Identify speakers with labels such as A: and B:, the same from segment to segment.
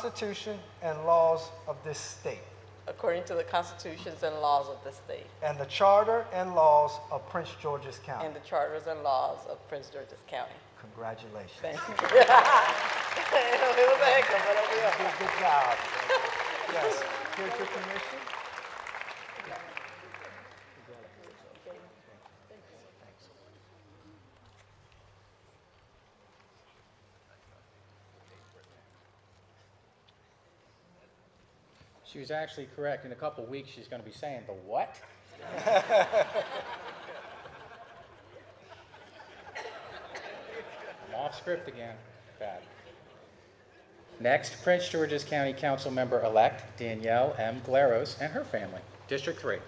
A: Constitution and laws of this state
B: according to the constitutions and laws of the state
A: and the Charter and laws of Prince George's County.
B: and the charters and laws of Prince George's County.
A: Congratulations.
B: Thank you. It was a hiccup, but it'll be okay.
A: Good, good job. Yes. Here's your commission.
C: She was actually correct. In a couple weeks, she's going to be saying, The what? I'm off script again. Bad. Next, Prince George's County Council member elect Danielle M. Glaros and her family, District 3.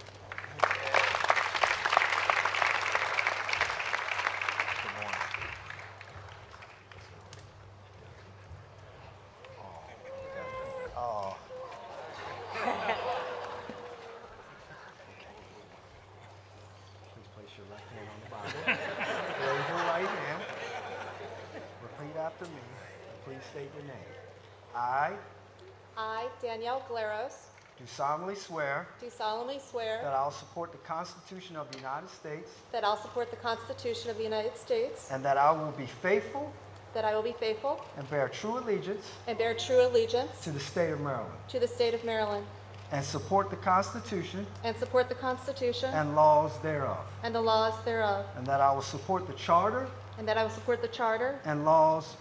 A: Please place your left hand on the Bible. Raise your right hand. Repeat after me. and Please state your name. I
D: I, Danielle Glaros,
A: do solemnly swear
D: do solemnly
A: that
D: swear
A: I will support the Constitution of the United States
D: that I'll support the Constitution of the United States,
A: and that I will be faithful
D: that I will be faithful
A: and bear true allegiance
D: and bear true allegiance
A: to the state of Maryland
D: to the state of Maryland,
A: and support the Constitution
D: and support the Constitution
A: and laws thereof,
D: and the laws thereof,
A: and that I will support the Charter
D: and that I will support the Charter
A: and laws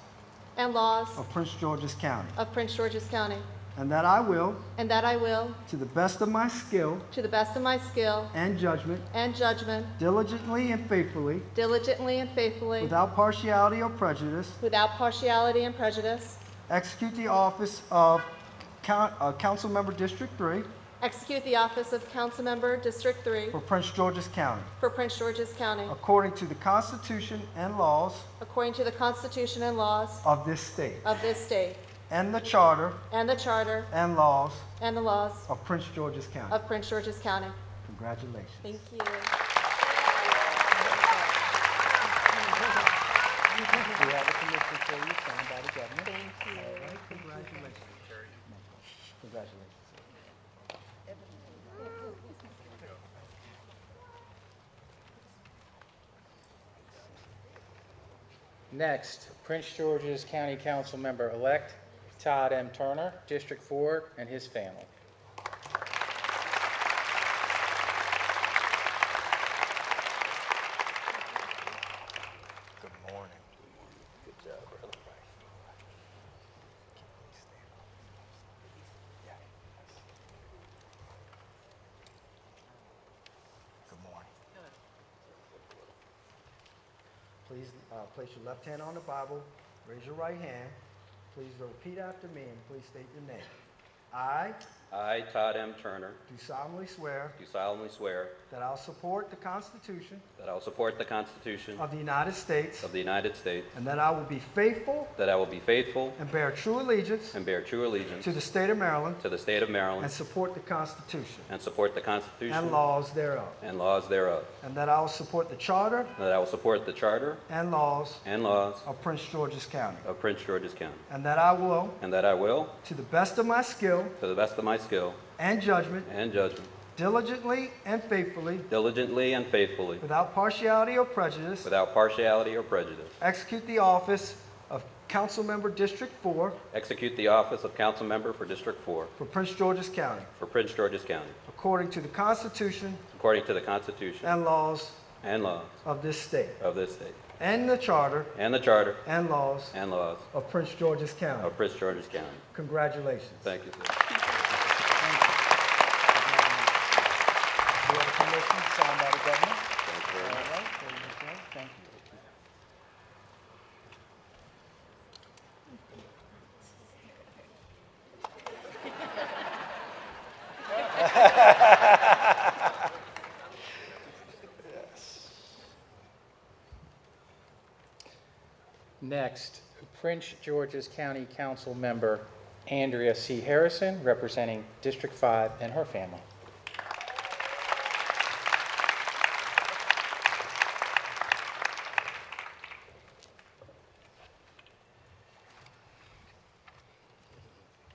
D: and laws
A: of Prince George's County,
D: of Prince George's County,
A: and that I will,
D: and that I will,
A: to the best of my skill
D: to the best of my skill
A: and judgment,
D: and judgment,
A: diligently and faithfully,
D: diligently and faithfully,
A: without partiality or prejudice,
D: without partiality and prejudice,
A: execute the office of coun- uh, Council Member District 3
D: execute the office of Councilmember District 3
A: for Prince George's County,
D: for Prince George's County,
A: according to the Constitution and laws
D: according to the Constitution and laws
A: of this state,
D: of this state
A: and the Charter
D: and the charter
A: and laws
D: and the laws
A: of Prince George's County.
D: of Prince George's County.
A: Congratulations.
D: Thank you.
C: We have a commission for you, signed by the governor. Thank you. Congratulations. Next, Prince George's County Council member-elect Todd M. Turner, District 4, and his family.
A: Good morning. Good job, brother. Good morning. Please, uh, place your left hand on the Bible, raise your right hand. Please repeat after me and please state your name. I
E: I, Todd M. Turner,
A: do solemnly swear
E: do solemnly swear
A: that I'll support the Constitution
E: that I will support the Constitution
A: of the United States
E: of the United States,
A: and that I will be faithful
E: that I will be faithful
A: and bear true allegiance
E: and bear true allegiance
A: to the state of Maryland
E: to the state of
A: And
E: Maryland,
A: support the Constitution
E: and support the
A: and
E: Constitution
A: laws thereof.
E: and laws thereof,
A: And that I will support the Charter
E: and that I will support the Charter
A: and laws
E: and laws
A: of Prince George's County.
E: of Prince George's County,
A: And that I will,
E: and that I will,
A: to the best of my skill
E: to the best of my skill
A: and judgment,
E: and judgment,
A: diligently and faithfully,
E: diligently and faithfully,
A: without partiality or prejudice,
E: without partiality or prejudice,
A: execute the office of Councilmember District 4
E: execute the office of council member for District 4
A: for Prince George's County,
E: for Prince George's County,
A: according to the Constitution
E: according to the Constitution
A: and laws
E: and laws
A: of this state,
E: of this state,
A: and the Charter
E: and the Charter
A: and laws
E: and laws
A: of Prince George's County.
E: of Prince George's County.
A: Congratulations.
E: Thank you, sir.
A: We have a commission signed by the governor.
E: Thank you very
A: All
E: much.
A: right, there you go. Thank you.
C: Next, Prince George's County Council member Andrea C. Harrison, representing District 5 and her family.